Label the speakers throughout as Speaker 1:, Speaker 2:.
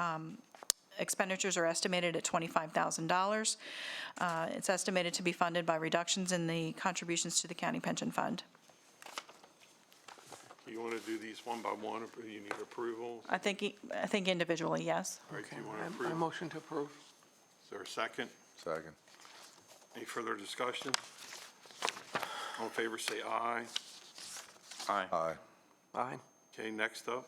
Speaker 1: um, expenditures are estimated at $25,000. Uh, It's estimated to be funded by reductions in the contributions to the county pension fund.
Speaker 2: Do you want to do these one by one, or you need approval?
Speaker 1: I think, e- I think individually, yes.
Speaker 2: All right, do you want to
Speaker 3: I- I
Speaker 2: approve?
Speaker 3: motion to approve.
Speaker 2: Is there a second?
Speaker 4: Second.
Speaker 2: Any further discussion? All in favor, say aye.
Speaker 4: Aye.
Speaker 3: Aye.
Speaker 2: Okay, next up,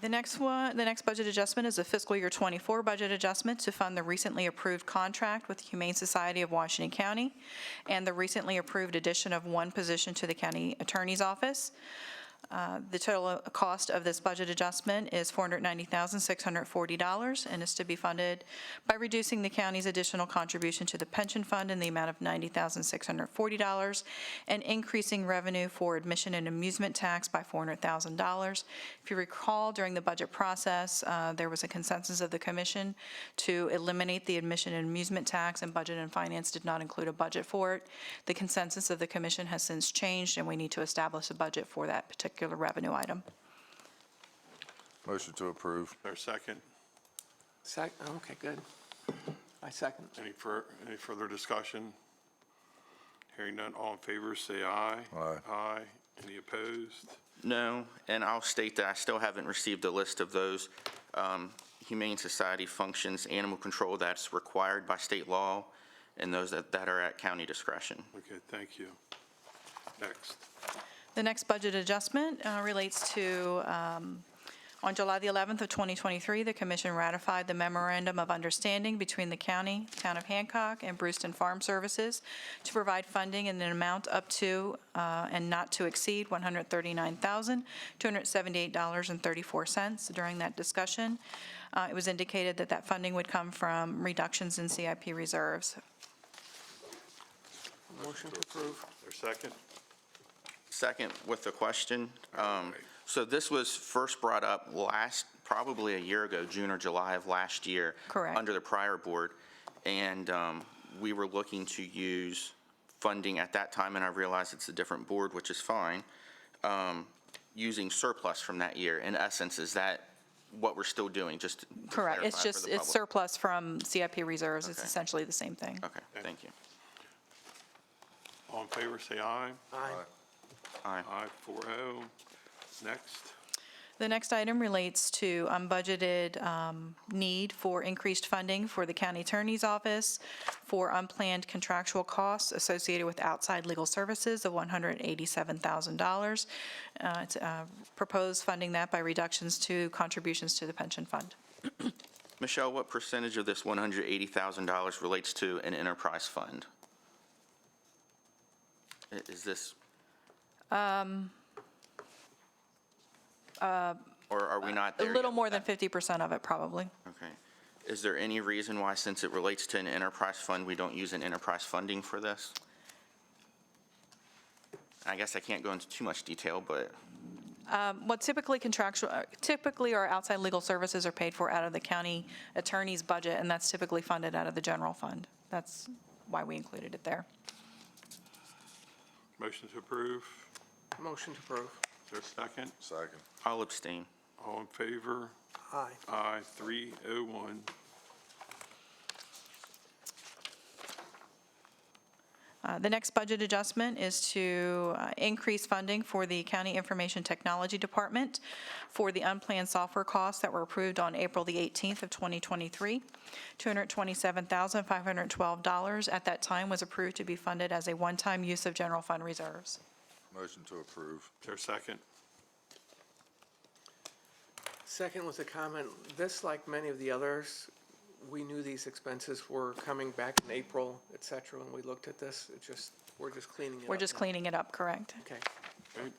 Speaker 1: The next one, the next budget adjustment is a fiscal year '24 budget adjustment to fund the recently approved contract with the Humane Society of Washington County and the recently approved addition of one position to the county attorney's office. Uh, The total cost of this budget adjustment is $490,640 and is to be funded by reducing the county's additional contribution to the pension fund in the amount of $90,640 and increasing revenue for admission and amusement tax by $400,000. If you recall, during the budget process, uh, there was a consensus of the commission to eliminate the admission and amusement tax, and Budget and Finance did not include a budget for it. The consensus of the commission has since changed, and we need to establish a budget for that particular revenue item.
Speaker 4: Motion to approve.
Speaker 2: is there a second?
Speaker 3: Sec, okay, good. I second.
Speaker 2: Any fur, any further discussion? Hearing none, all in favor, say aye.
Speaker 4: Aye.
Speaker 2: Aye. Any opposed?
Speaker 5: No, and I'll state that I still haven't received a list of those um, Humane Society functions, animal control that's required by state law, and those that that are at county discretion.
Speaker 2: Okay, thank you. Next,
Speaker 1: The next budget adjustment uh, relates to, um, on July the 11th of 2023, the commission ratified the memorandum of understanding between the county, Town of Hancock, and Brewston Farm Services to provide funding in an amount up to uh, and not to exceed $139,278.34. During that discussion, uh, it was indicated that that funding would come from reductions in CIP reserves.
Speaker 3: Motion to approve.
Speaker 2: is there a second?
Speaker 5: Second, with the question, um,
Speaker 2: Alright.
Speaker 5: so this was first brought up last, probably a year ago, June or July of last year.
Speaker 1: Correct.
Speaker 5: Under the prior board, and um, we were looking to use funding at that time, and I realize it's a different board, which is fine, um, using surplus from that year. In essence, is that what we're still doing, just to
Speaker 1: Correct. It's
Speaker 5: clarify for
Speaker 1: just,
Speaker 5: the
Speaker 1: it's
Speaker 5: public?
Speaker 1: surplus from CIP reserves. It's
Speaker 5: Okay.
Speaker 1: essentially the same thing.
Speaker 5: Okay, thank you.
Speaker 2: All in favor, say aye.
Speaker 3: Aye.
Speaker 5: Aye.
Speaker 2: Aye, four oh. Next,
Speaker 1: The next item relates to unbudgeted um, need for increased funding for the county attorney's office for unplanned contractual costs associated with outside legal services of $187,000. Uh, It's uh, proposed funding that by reductions to contributions to the pension fund.
Speaker 5: Michelle, what percentage of this $180,000 relates to an enterprise fund? I- Is this?
Speaker 1: Um,
Speaker 5: Or are we
Speaker 1: uh,
Speaker 5: not
Speaker 1: A
Speaker 5: there?
Speaker 1: little
Speaker 5: yet?
Speaker 1: more than 50% of it, probably.
Speaker 5: Okay. Is there any reason why, since it relates to an enterprise fund, we don't use an enterprise funding for this? I guess I can't go into too much detail, but,
Speaker 1: What typically contractual, uh, typically our outside legal services are paid for out of the county attorney's budget, and that's typically funded out of the general fund. That's why we included it there.
Speaker 2: motion to approve,
Speaker 3: Motion to approve.
Speaker 2: is there a second?
Speaker 4: Second.
Speaker 5: I'll abstain.
Speaker 2: All in favor?
Speaker 3: Aye.
Speaker 2: Aye, three oh one.
Speaker 1: Uh, The next budget adjustment is to uh, increase funding for the County Information Technology Department for the unplanned software costs that were approved on April the 18th of 2023. $227,512 at that time was approved to be funded as a one-time use of general fund reserves.
Speaker 4: Motion to approve.
Speaker 2: Is there a second?
Speaker 3: Second was a comment, this, like many of the others, we knew these expenses were coming back in April, et cetera, when we looked at this. It just, we're just cleaning it up.
Speaker 1: We're just
Speaker 3: now.
Speaker 1: cleaning it up, correct?
Speaker 3: Okay,
Speaker 2: Okay,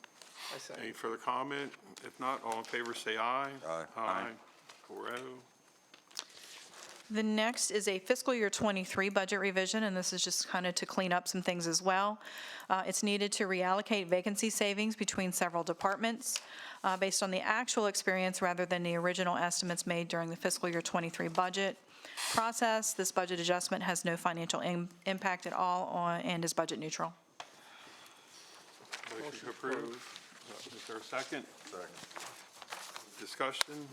Speaker 3: I second.
Speaker 2: Any further comment? If not, all in favor, say aye.
Speaker 4: Aye.
Speaker 2: Aye, four oh.
Speaker 1: The next is a fiscal year '23 budget revision, and this is just kind of to clean up some things as well. Uh, It's needed to reallocate vacancy savings between several departments uh, based on the actual experience rather than the original estimates made during the fiscal year '23 budget process. This budget adjustment has no financial im- impact at all on- and is budget neutral.
Speaker 2: Motion to approve. Is there a second?
Speaker 4: Second.
Speaker 2: Discussion?